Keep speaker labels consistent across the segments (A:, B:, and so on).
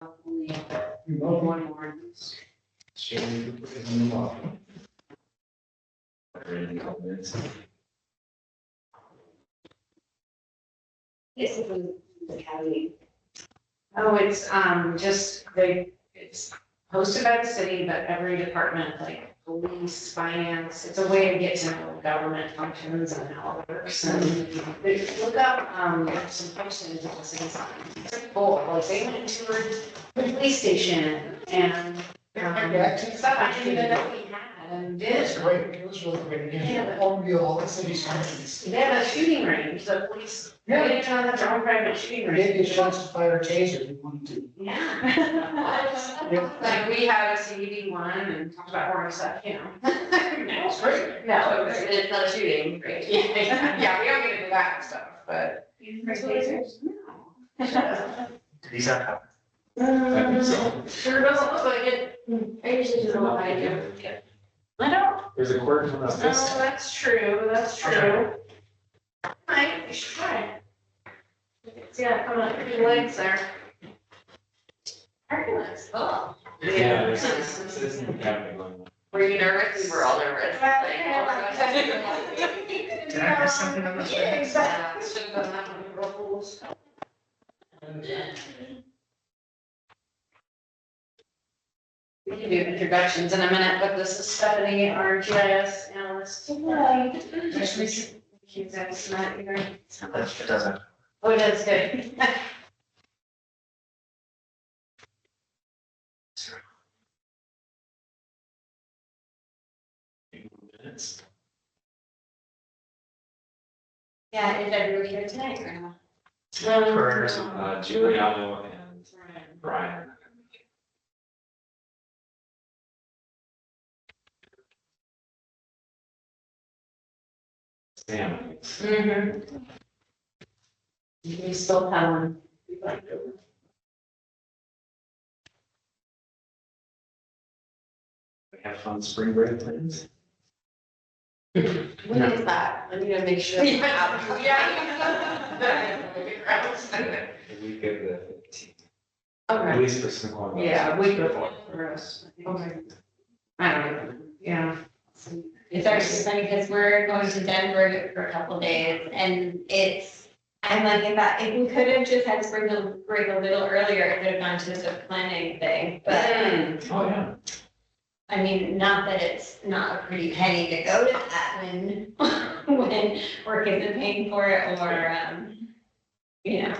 A: the remote one ordinance. It's the the county. Oh, it's, um, just, they, it's hosted by the city, but every department, like police, finance, it's a way to get to know government functions and how it works. And they- look up, um, some functions that was in some, it's pretty cool, like they went and toured the police station and. um, Stuff I didn't even know we had and did.
B: It's great, it was really great, you
A: Yeah,
B: get
A: but-
B: to overview all the city's functions.
A: They have a shooting range, the police, they
B: Yeah.
A: didn't have their own private shooting range.
B: Maybe a shots of fire taser if you wanted to.
A: Yeah. Like, we had a CBD one and talked about horror stuff, you know. No,
B: It's great.
A: no, it was, it's not shooting, great. Yeah, yeah, we don't get into that stuff, but. No.
C: These are.
D: I think so.
A: Sure doesn't look like it. Mm. I usually just don't like it. I don't,
C: There's a quirk in
A: no, Oh, that's true, that's true. Right, you should try it. Yeah, come on, put your legs there. Arguments, oh.
C: Yeah.
A: Yeah.
C: Did
D: Were you nervous? We were all nervous.
A: Did
C: I miss something on this?
A: Yeah, exactly. Should've done that when we were rules. We can do introductions in a minute, but this is Stephanie, our GIS analyst. Hi.
B: Nice to meet
A: She's at Snot, you're,
C: It doesn't.
A: oh, it is good.
C: Minutes.
A: Yeah, is everybody here tonight Um, or not?
C: Curtis, uh, Giuliano and Brian. Sam.
A: Mm-hmm. We still have one. We'd like to-
C: We have fun spring break plans.
D: When is that? I need to make sure. I'm out.
A: Yeah.
C: The week of the fifteenth, at
A: Okay.
C: least for Snoqualmie.
A: Yeah, we could for us. I think.
D: Okay.
A: I don't know, yeah.
D: It's actually funny because we're going to Denver for a couple days and it's, I'm like, if that, if we could have just had spring break a little earlier, it would have gone to the planning thing. But
A: Mm.
C: Oh, yeah.
D: I mean, not that it's not a pretty penny to go to that when, when we're getting paying for it or, um, you know,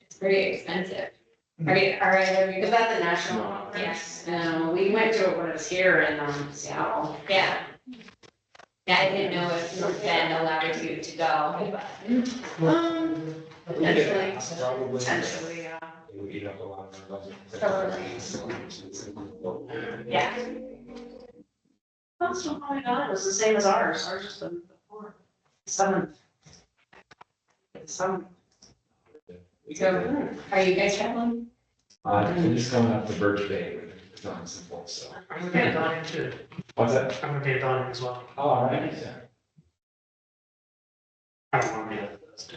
D: it's pretty expensive. Are you, are either of you
A: Is that the national conference?
D: Yes.
A: No, we went to it when it was here in um, Seattle.
D: Yeah. Yeah, I didn't know if you were then allowed you to go, but
A: Um, Potentially.
C: Probably.
A: potentially, yeah.
C: It would eat up a lot of our budget.
D: yeah.
A: That's what I got, it was the same as ours, ours was the fourth, seventh. Some,
C: We
A: so,
C: got,
A: hmm,
D: Are you guys traveling?
C: uh, we're just coming up to Birch Bay, it's not simple, so.
E: I'm gonna be a Don too.
C: What's that?
E: I'm gonna be a Don as well.
C: Oh, all right. Yeah.
E: I don't wanna be a first.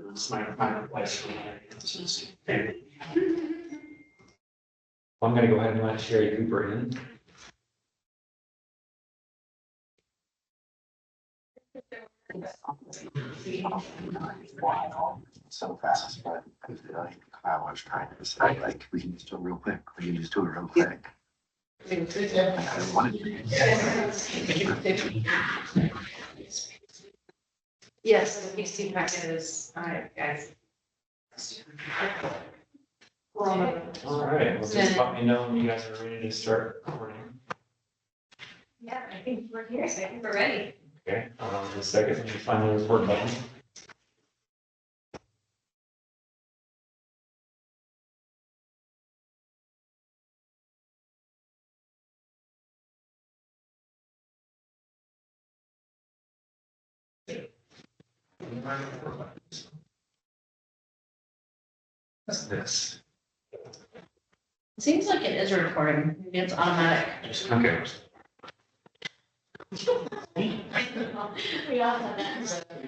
E: It's my, my wife's from there. It's just family.
C: I'm gonna go ahead and let Sherry Cooper in.
F: so fast, but I feel like I was trying to say, like, we can just do it real quick, we can just do it real quick. Like, I wanted to.
A: yes, the PC packet is, all right, guys. Well,
C: All right, well, just let me know when you guys are ready to start recording.
D: Yeah, I think we're here, so I think we're ready.
C: Okay, um, the second, when you find the record button. What's this?
D: Seems like it is recording, Maybe it's automatic.
C: Okay.
D: We all have that.